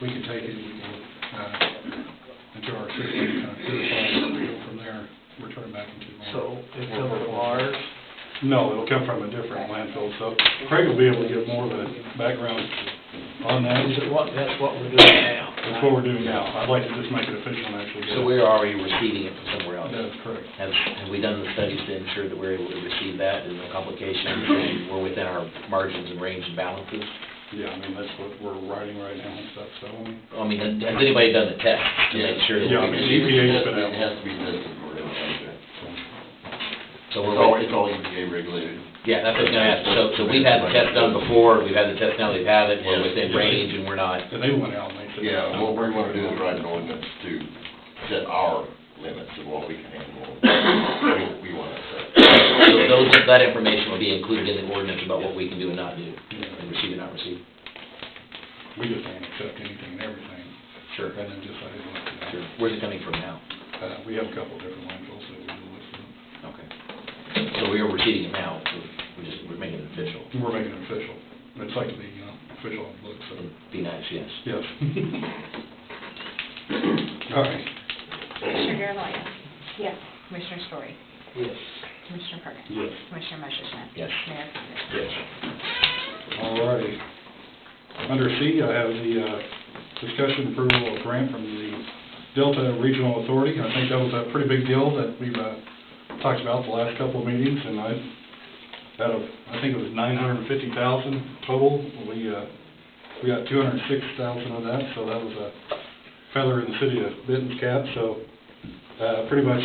we can take it, we will, uh, into our system, kind of certify it, and we go from there, return back into. So it comes from ours, No, it'll come from a different landfill, so Craig will be able to give more of a background on that. is it what, that's what we're doing now? That's what we're doing now. I'd like to just make it official and actually get it. So we're already receiving it from somewhere else? That is correct. Have, have we done the studies to ensure that we're able to receive that and no complications, and we're within our margins and range and balances? Yeah, I mean, that's what we're writing right now and stuff, so, I mean, I mean, has has anybody done the test to make sure that Yeah, I we mean, E receive? EPA 's It been out. has to be tested for it, okay. So we're It's always, always, it's always EPA regulated. yeah, that's what I was gonna ask, so, so we've had the test done before, we've had the test now, they've had it, we're Yeah. within range and we're not, and they went out and they said. Yeah, what we wanna do is write an ordinance to set our limits of what we can handle. We we want to set. so those, that information will be included in the ordinance about what we can do and not do, and receive and not receive. We just don't accept anything and everything, Sure. rather than just let it look. at Sure. it. Where's it coming from now? Uh, we have a couple different landfills that we do look at. Okay. So we are receiving it now, we're just, we're making it official. And We're making it official. It's like to be, you know, official on the books, so, It'd Be nice, yes. yes. All right, Commissioner Garvelia? Yes. Commissioner Story? Yes. Commissioner Perkins? Yes. Commissioner Messersohn? Yes. Mayor Condon? all righty. Under C, I have the, uh, discussion approval of grant from the Delta Regional Authority. I think that was a pretty big deal that we've, uh, talked about the last couple of meetings, and I, out of, I think it was nine hundred and fifty thousand total, we, uh, we got two hundred and six thousand of that, so that was a feather in the city of Benton's cap, so, uh, pretty much,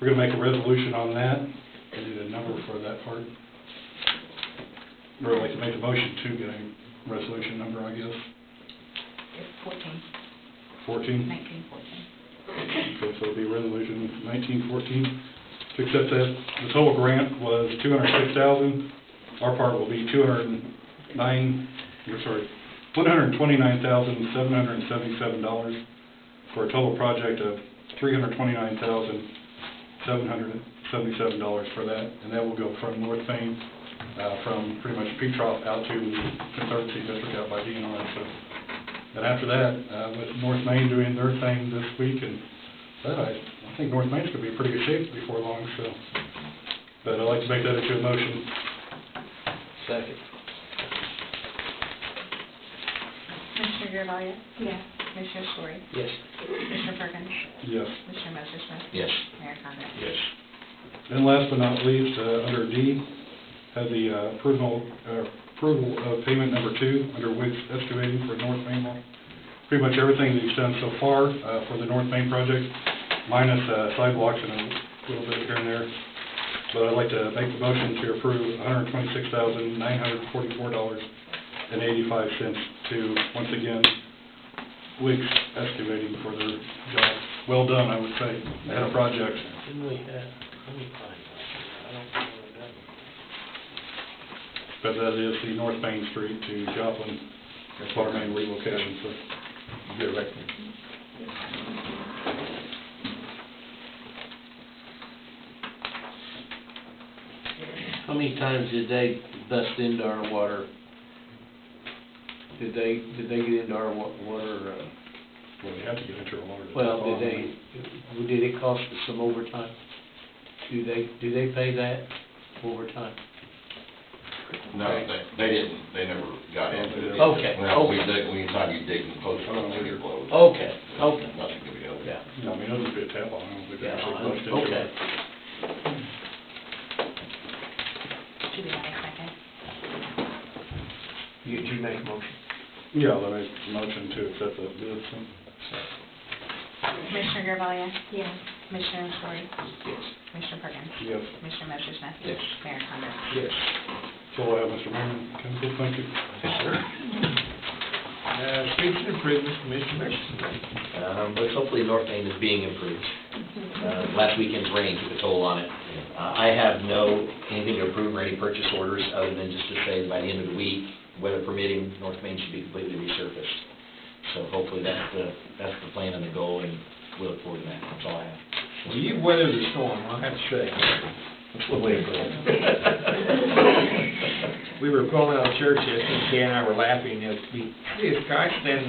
we're gonna make a resolution on that, I need a number for that part. Or I'd like to make a motion to get a resolution number, I guess, It's fourteen, fourteen? nineteen fourteen. Okay, so it'll be resolution nineteen fourteen, to accept that, the total grant was two hundred and six thousand, our part will be two hundred and nine, or sorry, one hundred and twenty-nine thousand, seven hundred and seventy-seven dollars, for a total project of three hundred and twenty-nine thousand, seven hundred and seventy-seven dollars for that, and that will go from North Main, uh, from pretty much Petroff out to Conservancy District out by DNR, so. And after that, uh, with North Main doing their thing this week and that, I, I think North Main's gonna be in pretty good shape before long, so. But I'd like to make that into a motion. Second. Commissioner Garvelia? Yes. Commissioner Story? Yes. Commissioner Perkins? Yes. Commissioner Messersohn? Yes. Mayor Condon? Yes. And last but not least, uh, under D, have the uh, approval, uh, approval of payment number two under Wicks excavating for North Main. Lo- Pretty much everything that he's done so far uh, for the North Main project, minus uh, sidewalks and a little bit here and there. But I'd like to make the motion to approve $126,944.85 to, once again, Wicks excavating for their job. Well done, I would say, They had a project. Didn't we have, let me find that. I don't know what that was. But that is the North Main Street to Joplin, as part of main relocation, so. Get it right. How many times did they bust into our water? Did they, did they get into our wa- water, uh, Well, you have to get into a water. to well, tap did on. they, did it cost us some overtime? Do they, do they pay that overtime? No, they, they didn't, they never got into it. Okay, Well, we okay. dig, we decide you dig and post something, it blows. Okay, okay. Nothing to be held. Yeah. No, I mean, it'll just be a tap on, I don't think they Yeah, actually I- pushed into okay. it. Should we have a second? You, you make a motion. Yeah, I'll make a motion to accept the bid, so. Commissioner Garvelia? Yes. Commissioner Story? Yes. Commissioner Perkins? Yes. Commissioner Messersohn? Yes. Mayor Condon? Yes. So, uh, Mr. Mayor, Council, thank you. Uh, streets and improvements, Commissioner Merson. Um, but hopefully North Main is being improved. Uh, last weekend's rain took a toll on it. Uh, I have no, anything to approve or any purchase orders, other than just to say by the end of the week, weather permitting, North Main should be completely resurfaced. So hopefully that's the, that's the plan and the goal, and we look forward to that, that's all I have. Well, you weathered the storm, I have to say. We were pulling out of church yesterday, Kay and I were laughing, as we, this guy standing